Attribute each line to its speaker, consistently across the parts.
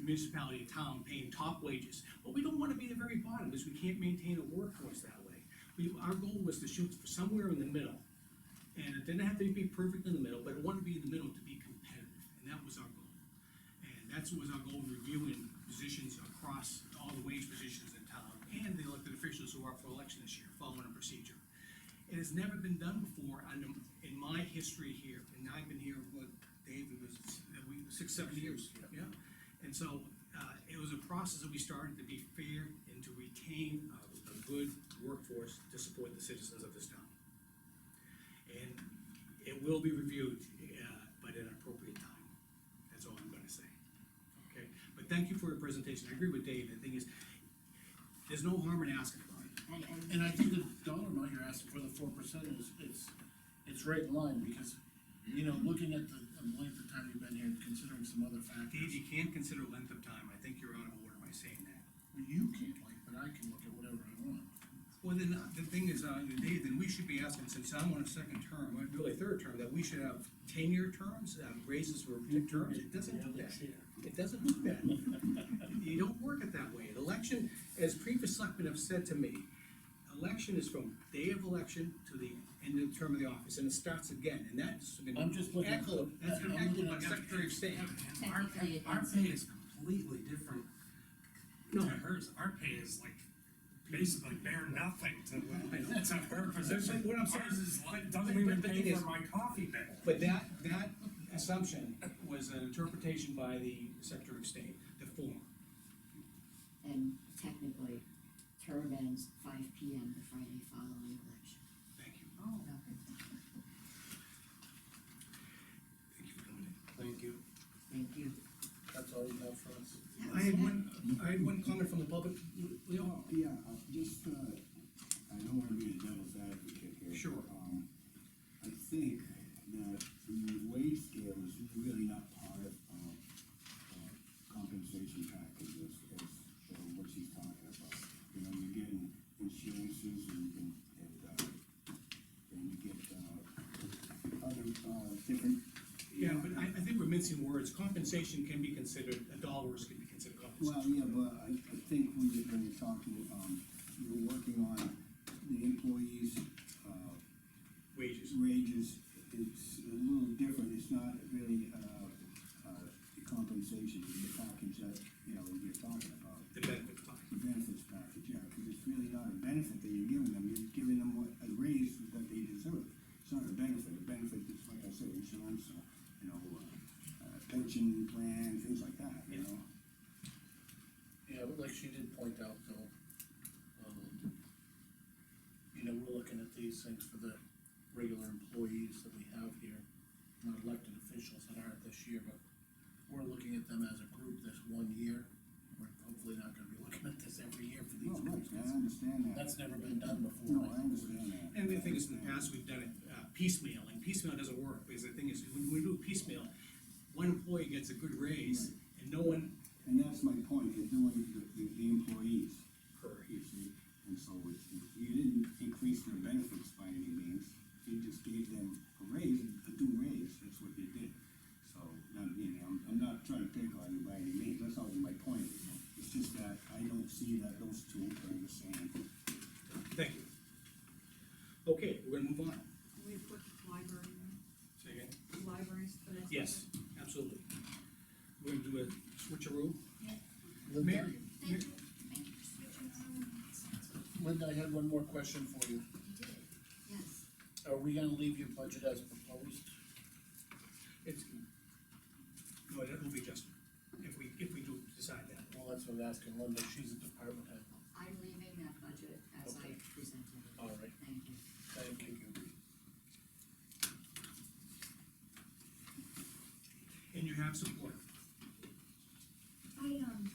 Speaker 1: municipality, town paying top wages, but we don't wanna be the very bottom, because we can't maintain a workforce that way. We, our goal was to shoot for somewhere in the middle, and it didn't have to be perfect in the middle, but it wanted to be in the middle to be competitive, and that was our goal. And that's what was our goal, reviewing positions across all the wage positions in town, and the elected officials who are up for election this year, following a procedure. It has never been done before under, in my history here, and I've been here, what, Dave, it was, uh, we, six, seven years, yeah. And so, uh, it was a process that we started to be fair and to retain a, a good workforce to support the citizens of this town. And it will be reviewed, uh, but at an appropriate time, that's all I'm gonna say. Okay, but thank you for your presentation, I agree with Dave, the thing is, there's no harm in asking about it.
Speaker 2: Well, And I think the dollar amount you're asking for the four percent is, it's, it's right in line, because, you know, looking at the um, length of time you've been here, and considering some other
Speaker 1: Dave,
Speaker 2: factors.
Speaker 1: you can't consider length of time, I think you're out of order by saying that.
Speaker 2: well, You can't like, but I can look at whatever I want.
Speaker 1: Well, then, uh, the thing is, uh, Dave, then we should be asking, since I'm on a second term, or really third term, that we should have ten-year terms, uh, raises for terms, it doesn't do that. It doesn't do that. You don't work it that way. An election, as previous selectmen have said to me, election is from day of election to the end of the term of the office, and it starts again, and that's been
Speaker 2: I'm just looking-
Speaker 1: echoed, that's been
Speaker 2: I'm looking
Speaker 1: echoed by
Speaker 2: at-
Speaker 1: Secretary of State.
Speaker 3: Our,
Speaker 4: Technically, it
Speaker 3: our
Speaker 4: does.
Speaker 3: pay is completely different to
Speaker 1: No.
Speaker 3: hers, our pay is like basically bare nothing to,
Speaker 1: I know.
Speaker 3: to her position.
Speaker 1: But what I'm saying-
Speaker 3: Ours is like, doesn't
Speaker 1: but-
Speaker 3: even
Speaker 1: but the thing
Speaker 3: pay
Speaker 1: is-
Speaker 3: for my coffee bill.
Speaker 1: But that, that assumption was an interpretation by the Secretary of State, the form.
Speaker 4: And technically, term ends five P M the Friday following election.
Speaker 1: Thank you.
Speaker 4: Oh.
Speaker 1: Thank you for coming in.
Speaker 2: Thank you.
Speaker 4: Thank you.
Speaker 2: That's all you have for us?
Speaker 1: I had one, I had one comment from the public, Leo.
Speaker 5: Yeah, uh, just, uh, I don't wanna be the devil's advocate here.
Speaker 1: Sure.
Speaker 5: Um, I think that the wage scale is really not part of, uh, compensation package as, as, uh, what she's talking about. You know, you're getting insurances and, and, and, uh, and you get, uh, other, uh, different.
Speaker 1: Yeah, but I, I think we're mincing words, compensation can be considered, dollars can be considered
Speaker 5: Well,
Speaker 1: compensation.
Speaker 5: yeah, but I, I think when you when you're talking, um, you're working on the employees, uh,
Speaker 1: Wages,
Speaker 5: wages, it's a little different, it's not really, uh, uh, compensation, the package that, you know, you're talking about.
Speaker 1: the benefit fine.
Speaker 5: The benefits package, yeah, because it's really not a benefit that you're giving them, you're giving them what, a raise that they deserve. It's not a benefit, a benefit is, like I said, insurance, or, you know, uh, uh, pension plan, things like that, you know?
Speaker 2: Yeah, but like she did point out though, um, you know, we're looking at these things for the regular employees that we have here, not elected officials that aren't this year, but we're looking at them as a group this one year. We're hopefully not gonna be looking at this every year for
Speaker 5: No,
Speaker 2: these
Speaker 5: right,
Speaker 2: groups.
Speaker 5: I understand that,
Speaker 2: That's never been done before.
Speaker 5: no, I understand that.
Speaker 1: And the thing is, in the past, we've done it uh, piecemeal, and piecemeal doesn't work, because the thing is, when we do piecemeal, one employee gets a good raise, and no one
Speaker 5: And that's my point, you're doing the, the, the employees.
Speaker 1: Correct.
Speaker 5: You see, and so it's, you didn't increase their benefits by any means, you just gave them a raise, a due raise, that's what you did. So, not, you know, I'm, I'm not trying to pick on you by any means, that's not what my point is, it's just that I don't see that those two are the same.
Speaker 1: Thank you. Okay, we're gonna move on.
Speaker 6: We put library,
Speaker 1: Say again?
Speaker 6: in, libraries for next.
Speaker 1: Yes, absolutely. We're gonna do a switcheroo.
Speaker 2: Linda,
Speaker 1: Mary?
Speaker 4: Thank you, thank you for switching on.
Speaker 2: Linda, I had one more question for you.
Speaker 4: You did, it. yes.
Speaker 2: Are we gonna leave your budget as proposed?
Speaker 1: It's, no, that will be just, if we, if we do decide that.
Speaker 2: Well, that's what I was asking Linda, she's a department head.
Speaker 4: I'm leaving that budget as I
Speaker 2: Okay.
Speaker 4: presented it.
Speaker 2: All right.
Speaker 4: Thank you.
Speaker 2: Thank you.
Speaker 1: And you have support.
Speaker 7: I, um,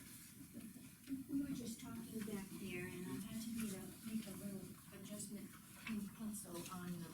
Speaker 7: we were just talking back there, and I had to make a, make a little adjustment in pencil on the